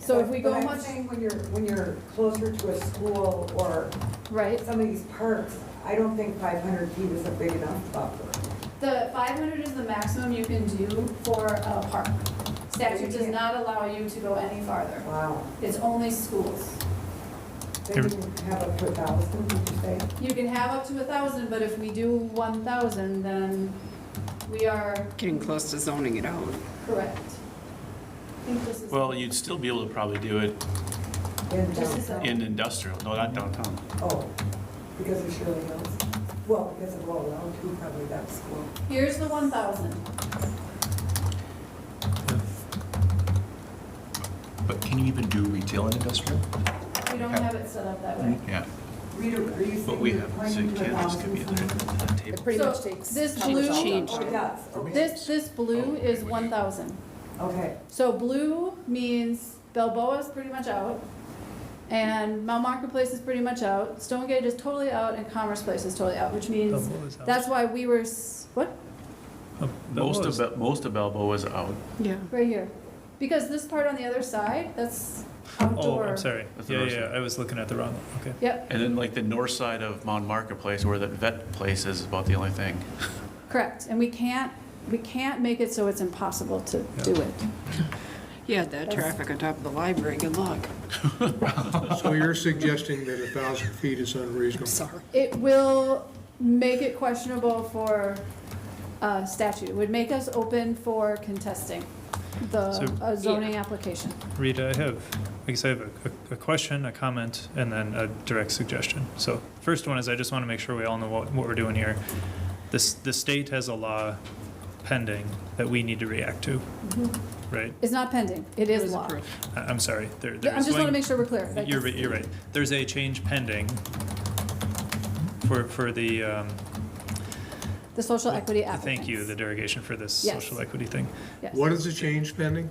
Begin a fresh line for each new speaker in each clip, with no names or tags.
So if we go
But I'm
much,
saying when you're, when you're closer to a school or
right,
some of these parks, I don't think five hundred feet is a big enough buffer.
The five hundred is the maximum you can do for a park. Statute does not allow you to go any farther.
Wow.
It's only schools.
Then you have up to a thousand, would you say?
You can have up to a thousand, but if we do one thousand, then we are
Getting close to zoning it out.
correct. I think this is.
Well, you'd still be able to probably do it
In
This is
downtown?
in industrial, no, not downtown.
Oh, because of Shirley Hills? Well, because of Roll Round, too, probably that school.
Here's the one thousand.
But can you even do retail and industrial?
We don't have it set up that way.
Yeah.
Rita, are you
But
saying
we
you're
have, so you
pointing to a
can't just give
thousand?
me there
somewhere?
at the
it
table.
pretty
So
much takes.
this
covers all
blue-
that.
Oh, it does, okay,
This, this blue is one thousand.
okay.
So blue means Balboa is pretty much out, and Mount Marketplace is pretty much out, Stonegate is totally out, and Commerce Place is totally out, which means that's why we were, s- what,
Most of, Bel- most of Balboa is out.
Yeah.
right here? Because this part on the other side, that's
Oh,
outdoor.
I'm sorry.
That's the
Yeah,
north
yeah,
side.
I was looking at the wrong one, okay.
Yep,
And then like the north side of Mount Marketplace where that vet place is about the only thing.
correct, and we can't, we can't make it so it's impossible to do it.
Yeah, that traffic on top of the library, good luck.
So you're suggesting that a 1,000 feet is
I'm
unreasonable?
sorry.
It will make it questionable for uh, statute, It would make us open for contesting the
So-
uh, zoning application.
Rita, I have, I guess I have a- a, a question, a comment, and then a direct suggestion. So first one is I just want to make sure we all know what, what we're doing here. This, the state has a law pending that we need to react to, right?
It's not pending, it
It
is
was
law.
approved.
I- I'm sorry, there,
Mm-hmm. Yeah, I
there's
just want to
going-
make sure we're clear. Like,
You're, right- you're right. There's a change pending for, for the, um,
The social equity applicants.
thank you, the derogation for this
Yes.
social equity thing.
Yes.
What is the change pending?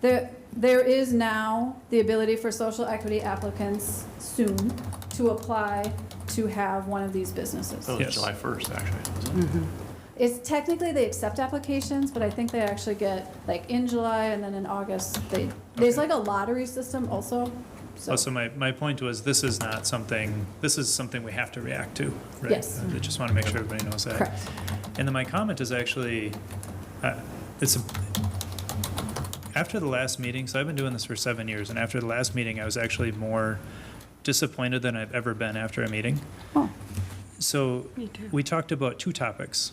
There, there is now the ability for social equity applicants soon to apply to have one of these businesses.
That
Yes.
was July 1st, actually, wasn't it?
It's technically, they accept applications, but I think they actually get, like, in July and then in August, they, there's
Okay.
like a lottery system also, so.
Also, my, my point was, this is not something, this is something we have to react to, right?
Yes.
I just want to make sure everybody knows that.
Correct.
And then my comment is actually, uh, it's, a- after the last meeting, so I've been doing this for seven years, and after the last meeting, I was actually more disappointed than I've ever been after a meeting.
Oh.
So
Me too.
we talked about two topics,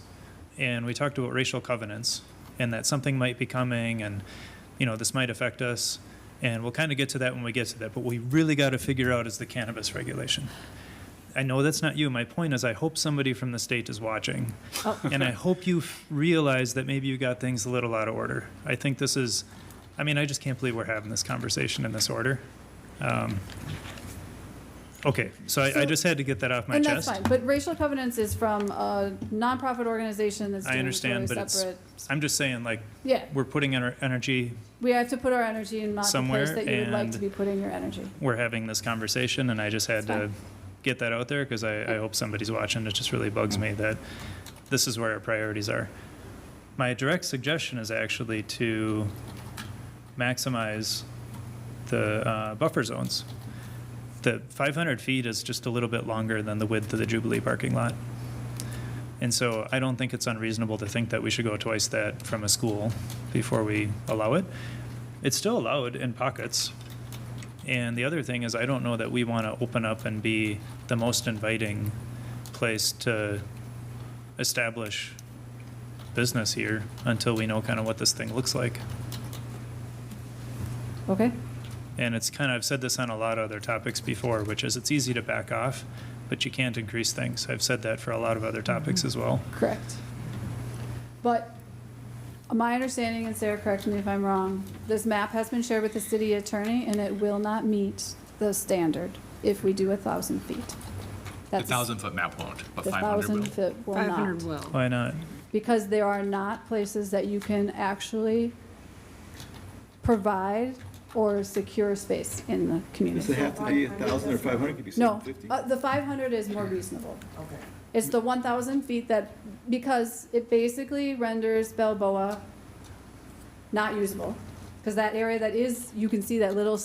and we talked about racial covenants, and that something might be coming, and, you know, this might affect us, and we'll kind of get to that when we get to that, but we really got to figure out is the cannabis regulation. I know that's not you. My point is, I hope somebody from the state is watching,
Oh.
and I hope you f- realize that maybe you got things a little out of order. I think this is, I mean, I just can't believe we're having this conversation in this order. Um, okay, so I, I
So-
just had to get that off my
And that's
chest.
fine, but racial covenants is from a nonprofit organization that's
I
doing it
understand,
totally
but it's-
separate.
I'm just saying, like,
Yeah,
we're putting our energy,
we have to put our energy in not the
Somewhere,
place that you would like
and-
to be putting your energy.
we're having this conversation, and I just had
It's
to
fine.
get that out there because I, I hope somebody's watching. It just really bugs me that this is where our priorities are. My direct suggestion is actually to maximize the uh, buffer zones. The 500 feet is just a little bit longer than the width of the Jubilee parking lot. And so I don't think it's unreasonable to think that we should go twice that from a school before we allow it. It's still allowed in pockets. And the other thing is, I don't know that we want to open up and be the most inviting place to establish business here until we know kind of what this thing looks like.
Okay?
And it's kind of, I've said this on a lot of other topics before, which is it's easy to back off, but you can't increase things. I've said that for a lot of other topics as well.
Correct. But my understanding, and Sarah, correct me if I'm wrong, this map has been shared with the city attorney, and it will not meet the standard if we do a thousand feet.
The
That's-
thousand-foot map won't, but
The
500 will.
thousand foot will
500
not,
will.
Why not?
because there are not places that you can actually provide or secure space in the
Does it
community.
have to be a thousand or five hundred? Could be
No,
seven fifty.
uh, the five hundred is more reasonable.
Okay.
It's the one thousand feet that, because it basically renders Balboa not usable. Because that area that is, you can see that little